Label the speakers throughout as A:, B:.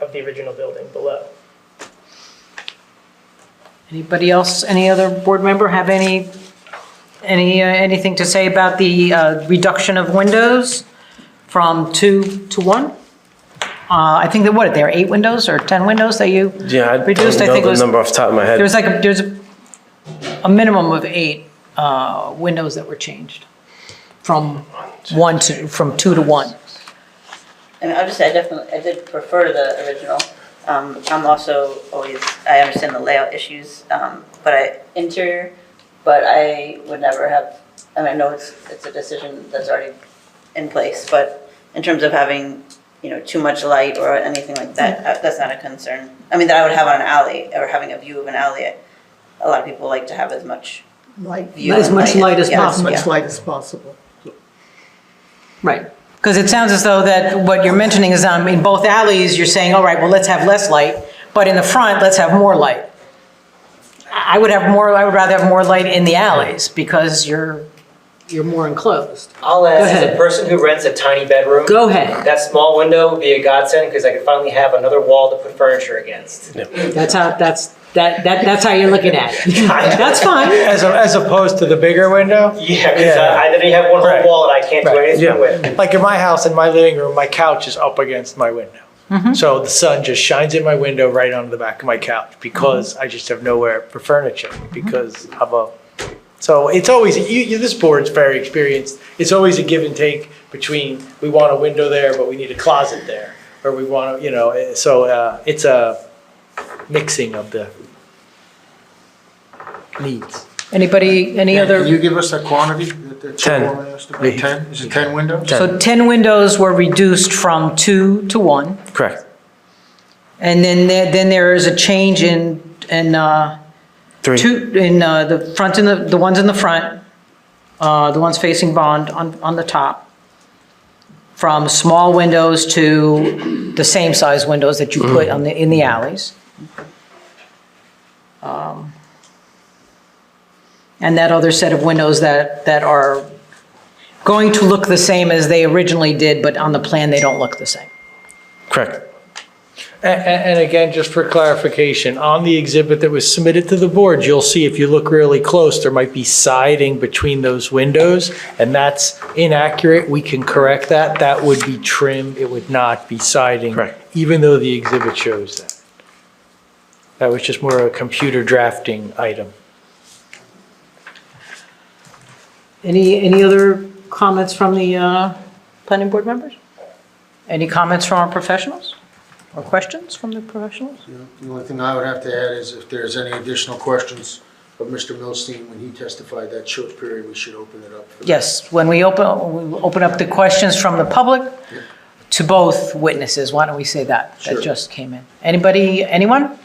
A: the original building below.
B: Anybody else, any other board member have any, any, uh, anything to say about the uh, reduction of windows from two to one? Uh, I think that, what, there are eight windows or 10 windows that you,
C: Yeah, I
B: Reduced, I
C: don't know
B: think,
C: the
B: was-
C: number off the top of my head.
B: there was like, a- there's a a minimum of eight uh, windows that were changed from one to, from two to one.
D: I mean, obviously, I definitely, I did prefer the original. Um, I'm also always, I understand the layout issues, um, but I, interior, but I would never have, I mean, I know it's, it's a decision that's already in place, but in terms of having, you know, too much light or anything like that, uh, that's not a concern. I mean, that I would have on an alley, or having a view of an alley. A lot of people like to have as much
E: Light,
D: view.
E: as much
D: and
E: light as
D: yeah,
E: possible.
D: yeah.
E: As much light as possible.
B: Right. Because it sounds as though that what you're mentioning is, um, in both alleys, you're saying, all right, well, let's have less light, but in the front, let's have more light. I I would have more, I would rather have more light in the alleys, because you're, you're more enclosed.
A: I'll ask, as a
B: ahead.
A: person who rents a tiny bedroom,
B: Go ahead,
A: that small window would be a godsend because I could finally have another wall to put furniture against.
B: that's how, that's, that, that, that's how you're looking at it. That's fine,
F: As, a- as opposed to the bigger window?
A: Yeah, because I, I literally have one whole
F: Right.
A: wall that I can't do
F: Right.
A: anything
C: Yeah.
A: with.
F: Like in my house, in my living room, my couch is up against my window. So the sun just shines in my window right onto the back of my couch because I just have nowhere for furniture because I'm a, so it's always, you, you, this board's very experienced. It's always a give and take between, we want a window there, but we need a closet there. Or we want, to, you know, eh, so, uh, it's a mixing of the needs.
B: anybody, any
G: Yeah, Can
B: other,
G: you give us a quantity that that
C: Ten.
G: Chick Warren asked about? Ten? Is it ten windows?
B: so 10 windows were reduced from two to one,
C: Correct.
B: and then, there- then there is a change in, in, uh,
C: Three.
B: Two, in uh, the front and the, the ones in the front, uh, the ones facing Bond on, on the top, from small windows to the same size windows that you put on the, in the alleys. Um, And that other set of windows that, that are going to look the same as they originally did, but on the plan, they don't look the same.
C: Correct.
F: And, and again, just for clarification, on the exhibit that was submitted to the board, you'll see if you look really close, there might be siding between those windows, and that's inaccurate. We can correct that. That would be trim. It would not be siding.
C: Correct.
F: Even though the exhibit shows that. That was just more of a computer drafting item.
B: Any, any other comments from the uh, planning board members? Any comments from our professionals? Or questions from the professionals?
G: The only thing I would have to add is if there's any additional questions of Mr. Milstein when he testified that short period, we should open it up. for-
B: Yes, when we open, we open up the questions from the public to both witnesses, why don't we say that?
G: Sure.
B: That just came in. Anybody, anyone?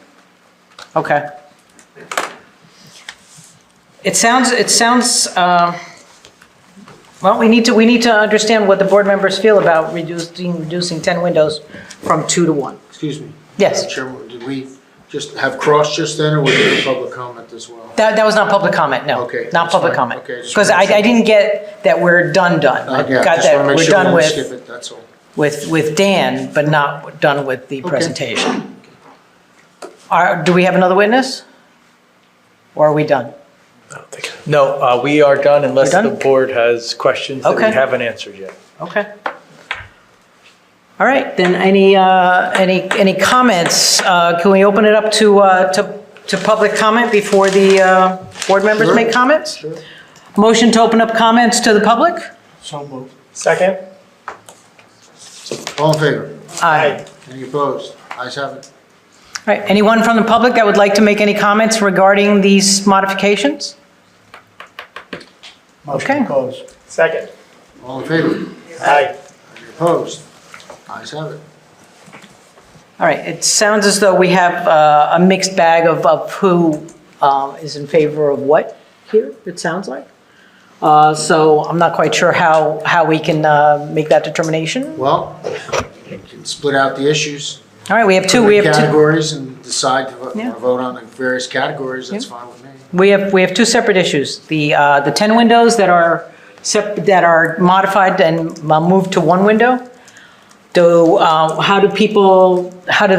B: Okay. It sounds, it sounds, um, well, we need to, we need to understand what the board members feel about reducing, reducing 10 windows from two to one.
G: Excuse me.
B: Yes.
G: Madam Chairman, did we just have cross just then, or was it a public comment as well?
B: That, that was not public comment, no.
G: Okay,
B: Not
G: that's
B: public
G: fine.
B: comment.
G: Okay, just
B: Because I,
G: wanted to-
B: I didn't get that we're done, done.
G: Uh,
B: I
G: yeah,
B: got
G: just wanna
B: that
G: make
B: we're
G: sure we
B: done
G: don't skip
B: with,
G: it, That's all.
B: with, with Dan, but not done with the presentation. Are, do we have another witness? Or are we done?
C: I don't think.
F: No, uh, we are done unless
B: We're
F: the
B: done?
F: board has questions that we
B: Okay.
F: haven't answered yet.
B: Okay. All right, then any, uh, any, any comments? Uh, Can we open it up to, uh, to, to public comment before the uh, board members
G: Sure.
B: make comments?
G: Sure.
B: Motion to open up comments to the public?
G: So moved.
F: Second?
G: All in favor?
B: Aye.
G: Any opposed? Ayes have it.
B: All right, anyone from the public that would like to make any comments regarding these modifications? Okay.
G: Motion closed.
A: Second.
G: All in favor?
A: Aye.
G: Any opposed? Ayes have it.
B: All right, it sounds as though we have uh, a mixed bag of, of who um, is in favor of what here, it sounds like. Uh, So I'm not quite sure how, how we can uh, make that determination.
G: Well, you can split out the issues.
B: All right, we have two, we have two,
G: Categories and decide to vo-
B: Yeah.
G: vote on the various categories, that's fine with me.
B: we have, we have two separate issues. The, uh, the 10 windows that are, sep- that are modified and uh, moved to one window. Do, uh, how do people, how do